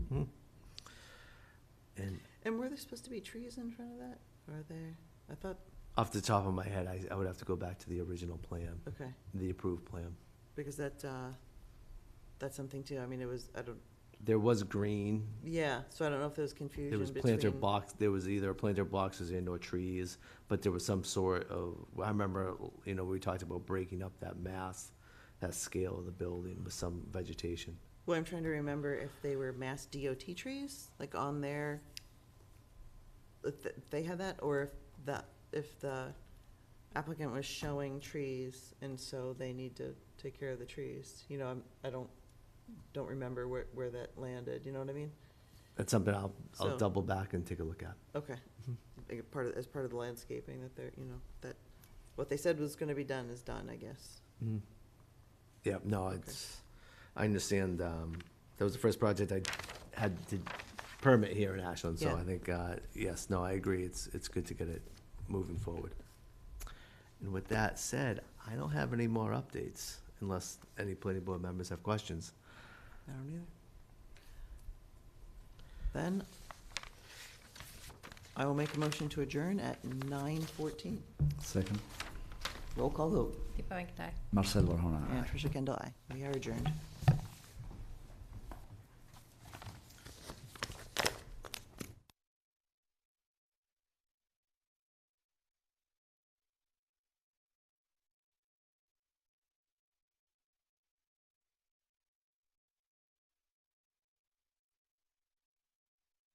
there supposed to be trees in front of that? Or are there, I thought, Off the top of my head, I, I would have to go back to the original plan, okay, the approved plan. because that, uh, that's something too, I mean, it was, I don't, There was green, yeah, so I don't know if there was confusion there between. was planter box, there was either planter boxes and or trees, but there was some sort of, I remember, you know, we talked about breaking up that mass, that scale of the building with some vegetation. Well, I'm trying to remember if they were mass DOT trees, like on their, if th- they had that, or if the, if the applicant was showing trees, and so they need to take care of the trees, you know, I'm, I don't, don't remember where, where that landed, you know what I mean? That's something I'll, I'll So- double back and take a look at. Okay, Like a part of, as part of the landscaping that they're, you know, that, what they said was gonna be done is done, I guess. Yeah, no, it's, I understand, um, that was the first project I had to permit here in Ashland, so Yeah. I think, uh, yes, no, I agree, it's, it's good to get it moving forward. And with that said, I don't have any more updates, unless any planning board members have questions. I don't either. Then I will make a motion to adjourn at nine fourteen. Second. Roll call vote. Deepa Venkata. Marcel Verhoeven, aye. And Tricia Kendall, aye. We are adjourned.